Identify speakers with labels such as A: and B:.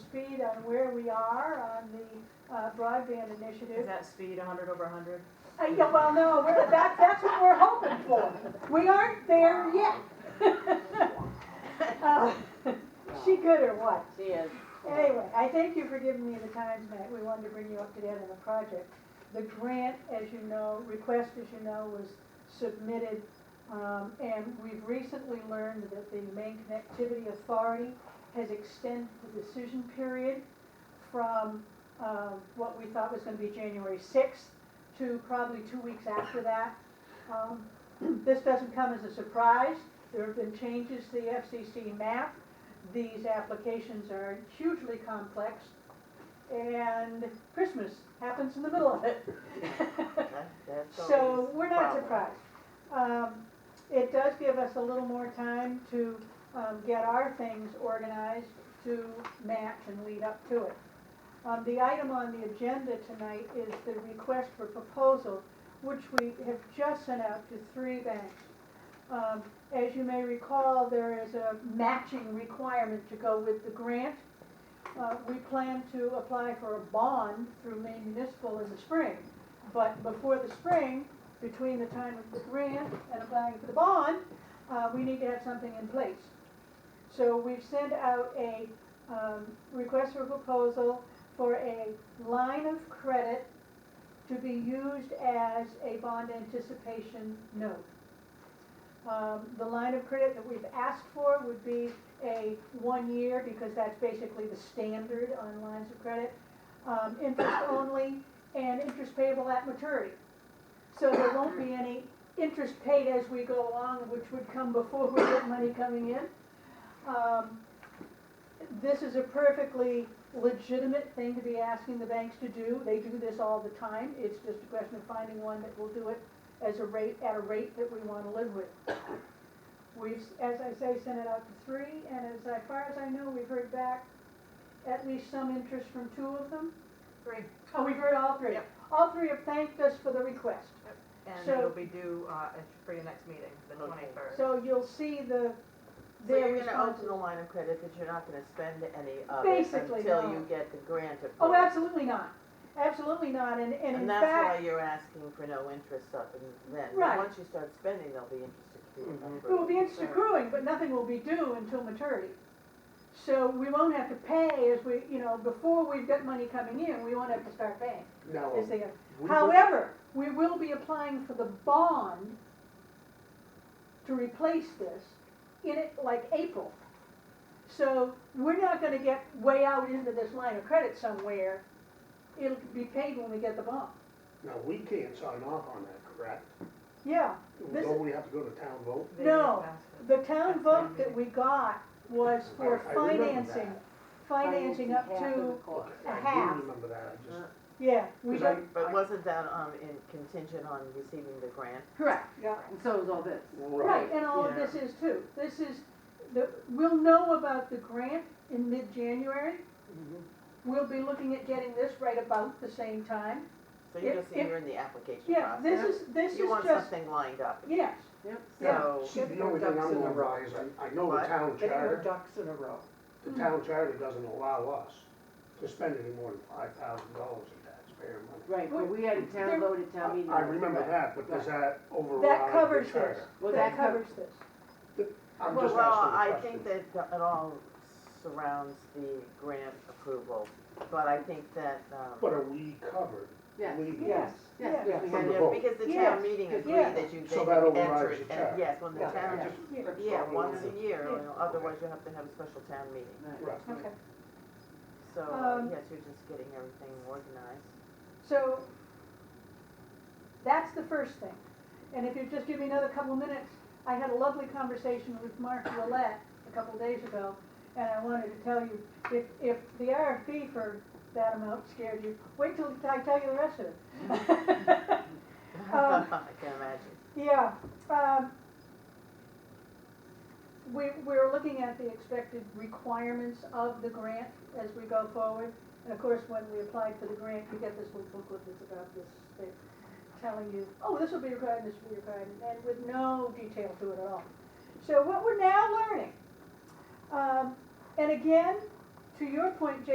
A: speed on where we are on the uh, broadband
B: Is
A: initiative.
B: that speed hundred over hundred?
A: Uh, yeah, well, no, we're- that, that's what we're hoping for. We aren't there yet. Uh, She good or what?
C: She is.
A: Anyway, I thank you for giving me the time tonight. We wanted to bring you up to date on the project. The grant, as you know, request, as you know, was submitted, um, and we've recently learned that the Maine Connectivity Authority has extended the decision period from, um, what we thought was gonna be January sixth to probably two weeks after that. Um, This doesn't come as a surprise. There have been changes to the FCC map these applications are hugely complex, and Christmas happens in the middle of it. uh, So we're not surprised. Um, It does give us a little more time to um, get our things organized to match and lead up to it. Um, The item on the agenda tonight is the request for proposal, which we have just sent out to three banks. Um, As you may recall, there is a matching requirement to go with the grant. Uh, We plan to apply for a bond through Maine Municipal in the spring. But before the spring, between the time of the grant and applying for the bond, uh, we need to have something in place. So we've sent out a, um, request for proposal for a line of credit to be used as a bond anticipation note. Um, the line of credit that we've asked for would be a one year, because that's basically the standard on lines of credit. Um, interest only, and interest payable at maturity. So there won't be any interest paid as we go along, which would come before we get money coming in. Um, This is a perfectly legitimate thing to be asking the banks to do. They do this all the time. It's just a question of finding one that will do it as a rate, at a rate that we wanna live with. We've, as I say, sent it out to three, and as I- far as I know, we've heard back at least some interest from two of them.
B: Three.
A: Oh, we've heard all three.
B: Yep.
A: All three have thanked us for the request.
B: And
A: So-
B: it'll be due, uh, at- for your next meeting, the
C: Okay.
B: twenty-third.
A: So you'll see the,
C: So
A: their
C: you're gonna
A: response.
C: open the line of credit, but you're not gonna spend any of it
A: Basically,
C: until
A: no.
C: you get the grant approved.
A: Oh, absolutely not. Absolutely not. And, and in
C: And that's
A: fact,
C: why you're asking for no interest up and then, but
A: Right.
C: once you start spending, there'll be interest accrued.
A: it will be interest accruing, but nothing will be due until maturity. So we won't have to pay as we, you know, before we've got money coming in, we won't have to start paying.
D: Now,
A: Is the-
D: we would-
A: However, we will be applying for the bond to replace this in it like April. So we're not gonna get way out into this line of credit somewhere. It'll be paid when we get the bond.
D: now, we can't sign off on that, correct?
A: Yeah, This-
D: Don't we have to go to town vote?
A: No, the town vote that we got was for
D: I- I remember
A: financing,
D: that.
A: financing up
C: half of the
A: to,
C: cost.
D: I
A: half.
D: do remember that, I just,
A: yeah, we
D: Because I-
A: got,
C: But wasn't that, um, in contingent on receiving the grant?
A: correct.
E: Yeah, and so is all this.
D: right.
A: Right, and all of this is too. This is, the, we'll know about the grant in mid-January. We'll be looking at getting this right about the same time.
C: So you're
A: If-
C: just, you're in the application
A: Yeah,
C: process.
A: this is, this is
C: You want
A: just,
C: something lined up,
A: yes, yeah.
C: so.
D: See, the only thing I'm gonna buy is, I, I know the
C: What?
D: town
E: They were
D: charter,
E: ducks in a row.
D: the town charter doesn't allow us to spend any more than five thousand dollars of taxpayer money.
E: Right, but we had a
A: There-
E: town voted town meeting.
D: I I remember that, but does that override
A: covers
D: the
A: this.
D: charter?
E: Well,
A: that
E: that
A: covers this.
D: I'm
C: Well,
D: just
C: I
D: asking a
C: think
D: question.
C: that it all surrounds the grant approval, but I think that, um.
D: But are we covered
E: Yeah.
D: legally?
A: Yes,
E: Yes,
A: Yeah.
E: yes, we
D: From
E: had
D: the
E: it.
C: Yeah,
D: vote.
C: because the
A: Yes,
C: town meeting agreed
A: yeah.
C: that you, they
D: So
C: can
D: that
C: enter
D: overrides
C: it,
D: the
C: and
D: charter.
C: yes, when the
D: Yeah, I
C: town,
D: just-
A: yeah,
C: yeah, once a year,
A: Yeah.
C: you know, otherwise you have to have a special town meeting.
E: Right.
D: Right.
A: okay.
C: So,
A: Um,
C: uh, yes, you're just getting everything organized.
A: So, that's the first thing. And if you just give me another couple minutes, I had a lovely conversation with Mark Willett a couple days ago, and I wanted to tell you, if, if the RFP for that amount scared you, wait till I tell you the rest of it. Um,
C: I can imagine.
A: Yeah, um, we, we're looking at the expected requirements of the grant as we go forward. And of course, when we applied for the grant, you get this little booklet that's about this thing, telling you, oh, this will be required, this will be required, and with no detail to it at all. So what we're now learning, um, and again, to your point, Jay.